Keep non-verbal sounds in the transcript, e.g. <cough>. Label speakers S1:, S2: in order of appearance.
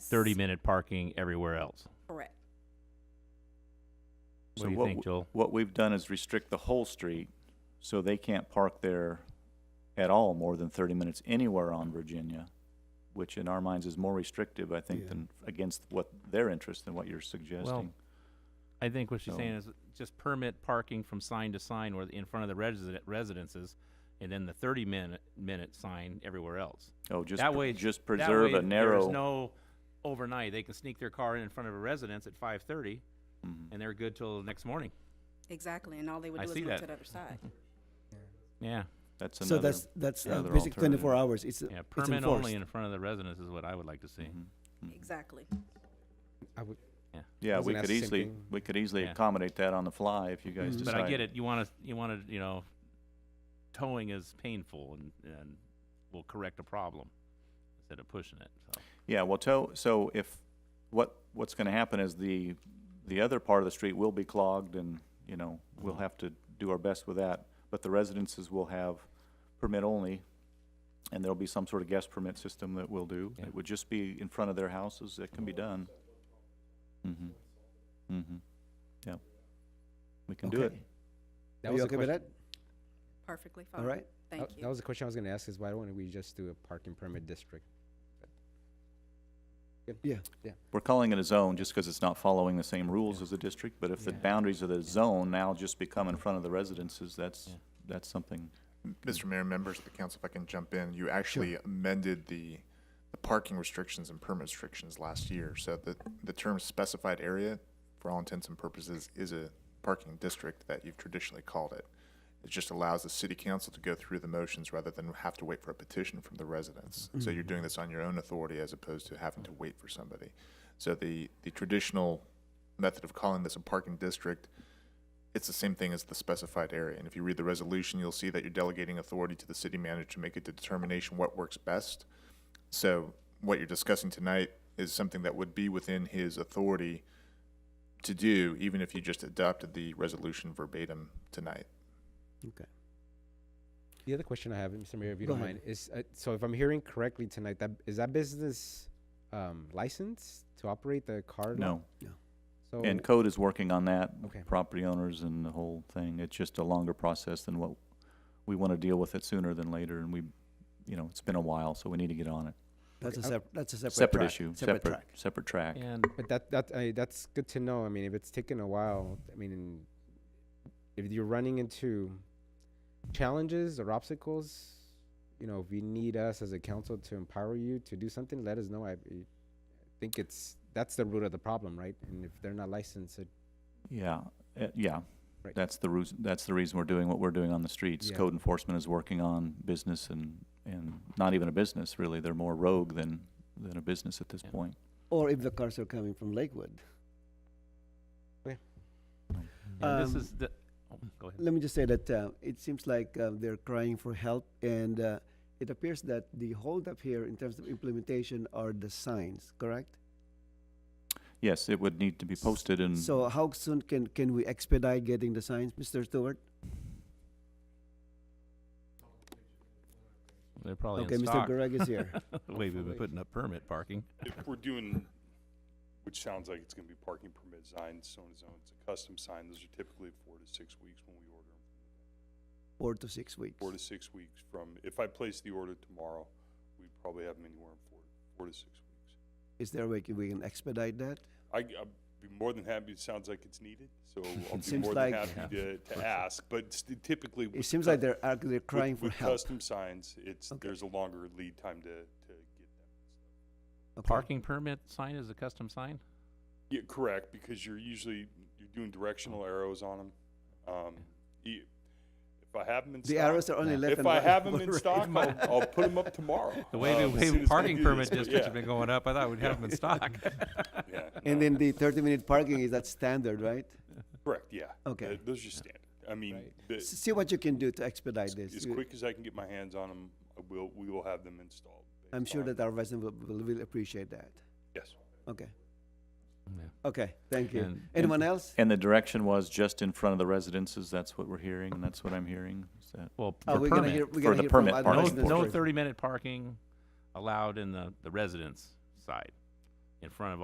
S1: thirty minute parking everywhere else.
S2: Correct.
S1: What
S3: So
S1: do you think,
S3: w-
S1: Joel?
S3: What we've done is restrict the whole street, so they can't park there at all more than thirty minutes anywhere on Virginia, which in our minds is more restrictive, I think,
S4: Yeah.
S3: than against what their interest than what you're suggesting.
S1: I think what she's
S3: So-
S1: saying is just permit parking from sign to sign or in front of the resident residences and then the thirty minute minute sign everywhere else.
S3: Oh, just,
S1: that
S3: pre-
S1: way
S3: just
S1: that
S3: preserve
S1: way
S3: a narrow.
S1: There's no overnight. They can sneak their car in in front of a residence at five thirty
S3: Mhm.
S1: and they're good till the next morning.
S2: Exactly, and all they would
S1: I
S2: do is
S1: see
S2: go
S1: that.
S2: to the
S1: <laughs>
S2: other side.
S1: Yeah,
S3: That's
S4: So
S3: another,
S4: that's, that's uh,
S3: another
S4: basically twenty-four
S3: alternative.
S4: hours. It's, uh,
S1: yeah,
S4: it's
S1: permit
S4: enforced.
S1: only in front of the residence is what I would like to
S3: Mm-hmm.
S1: see.
S2: Exactly.
S5: I would,
S3: yeah,
S5: Wasn't
S3: we
S5: that
S3: could
S5: the same
S3: easily,
S5: thing?
S3: we could easily
S1: Yeah. Mm-hmm.
S3: accommodate that on the fly if you guys
S4: Mhm.
S3: decide.
S1: But I get it, you wanna, you wanna, you know, towing is painful and, and will correct a problem instead of pushing it, so.
S3: Yeah, well, to, so if, what, what's gonna happen is the, the other part of the street will be clogged and, you know, we'll have to do our best with that. But the residences will have permit only, and there'll be some sort of guest permit system that we'll do.
S1: Yeah.
S3: It would just be in front of their houses, it can be done. Mm-hmm, mm-hmm, yeah. We can do it.
S4: Okay.
S5: that
S4: Are
S5: was
S4: you
S5: the
S4: okay with
S5: question-
S4: that?
S2: Perfectly fine.
S4: All right. Uh,
S2: Thank
S5: that-
S2: you.
S5: That was the question I was gonna ask is why don't we just do a parking permit district? Good.
S4: Yeah.
S5: Yeah.
S3: We're calling it a zone just because it's not following the same rules as the district, but if the
S5: Yeah.
S3: boundaries of the zone now just become in front of the residences, that's,
S1: Yeah.
S3: that's something.
S6: Mr. Mayor, members of the council, if I can jump in, you actually amended the, the parking restrictions and permit restrictions last year. So the, the term specified area, for all intents and purposes, is a parking district that you've traditionally called it. It just allows the city council to go through the motions rather than have to wait for a petition from the residents. So you're doing this on your own authority as opposed to having to wait for somebody. So the, the traditional method of calling this a parking district it's the same thing as the specified area. And if you read the resolution, you'll see that you're delegating authority to the city manager to make a determination what works best. So what you're discussing tonight is something that would be within his authority to do, even if you just adopted the resolution verbatim tonight.
S5: The other question I have, Mr. Mayor, if you
S4: Go
S5: don't
S4: ahead.
S5: mind, is, uh, so if I'm hearing correctly tonight, that, is that business, um, licensed to operate the car? lot?
S3: No.
S5: So,
S4: Oh.
S3: And code is working on that.
S5: Okay.
S3: Property owners and the whole thing. It's just a longer process than what, we want to deal with it sooner than later and we, you know, it's been a while, so we need to get on it.
S4: That's a
S5: Okay.
S4: sep- that's a separate
S3: Separate
S4: track,
S3: issue,
S4: Separate
S3: separate,
S4: track.
S3: separate track.
S1: And
S5: but that, that, I that's good to know. I mean, if it's taken a while, I mean, if you're running into challenges or obstacles, you know, if you need us as a council to empower you to do something, let us know. I, I think it's, that's the root of the problem, right? And if they're not licensed, it
S3: Yeah, uh, yeah.
S5: Right.
S3: That's the reason, that's the reason we're doing what we're doing on the streets.
S5: Yeah.
S3: Code enforcement is working on business and, and not even a business really. They're more rogue than, than a business at this
S1: Yeah.
S3: point.
S4: Or if the cars are coming from Lakewood.
S1: and this
S4: Um,
S1: is the, oh, go ahead.
S4: Let me just say that uh, it seems like uh, they're crying for help, and uh, it appears that the holdup here in terms of implementation are the signs, correct?
S3: Yes, it would need to be posted and.
S4: So how soon can can we expedite getting the signs, Mr. Stewart?
S1: They're probably
S4: okay,
S1: in
S4: Mr.
S1: stock.
S4: Gurag is here.
S1: <laughs> The way we've been putting up permit parking.
S7: if we're doing, which sounds like it's gonna be parking permit signs, so and so, it's a custom sign, those are typically four to six weeks when we order them.
S4: Four to six weeks.
S7: Four to six weeks from, if I place the order tomorrow, we probably have them anywhere in four, four to six weeks.
S4: Is there a way can- we can expedite that?
S7: I, I'd be more than happy, it sounds like it's needed,
S4: <laughs>
S7: so I'll be
S4: seems
S7: more
S4: like-
S7: than happy to, to ask, but s- typically.
S4: It
S7: with
S4: seems
S7: cus-
S4: like they're arg- they're
S7: with-
S4: crying for
S7: With
S4: help.
S7: custom signs, it's,
S4: Okay.
S7: there's a longer lead time to, to get them.
S4: Okay.
S1: Parking permit sign is a custom sign?
S7: Yeah, correct, because you're usually, you're doing
S4: Oh.
S7: directional arrows on them. Um, e- if I have them in stock.
S4: The arrows are only
S1: Yeah.
S4: left
S7: If
S4: and
S7: I
S4: right. <laughs>
S7: have them in
S4: Right.
S7: stock, I'll, I'll put them up tomorrow.
S1: <laughs> The way
S7: <laughs> Um,
S1: the
S7: as soon
S1: way
S7: as
S1: parking
S7: they do
S1: permit
S7: this, but
S1: districts have
S7: yeah,
S1: been going up, I thought we'd have them in stock.
S7: yeah,
S4: And
S7: no,
S4: then the 30 minute parking is that standard, right?
S7: Correct, yeah.
S4: Okay.
S7: Th- Those are standard. I mean, the-
S4: S- See what you can do to expedite
S7: as
S4: this.
S7: as
S4: You-
S7: quick as I can get my hands on them, I will, we will have them installed.
S4: I'm
S7: based
S4: sure
S7: on-
S4: that our residents will, will, will appreciate that.
S7: Yes.
S4: Okay.
S1: Yeah.
S4: Okay. Thank you.
S1: And-
S4: Anyone else?
S3: And the direction was just in front of the residences, that's what we're hearing, and that's what I'm hearing, is that?
S1: Well,
S4: Oh,
S1: for
S4: we're gonna hear,
S1: permit.
S4: we're
S3: For
S4: gonna
S3: the
S4: hear from
S3: permit
S4: other
S3: part.
S1: No,
S3: parking
S4: residents
S1: no
S4: first.
S1: thirty minute parking allowed in the, the residence side. in front of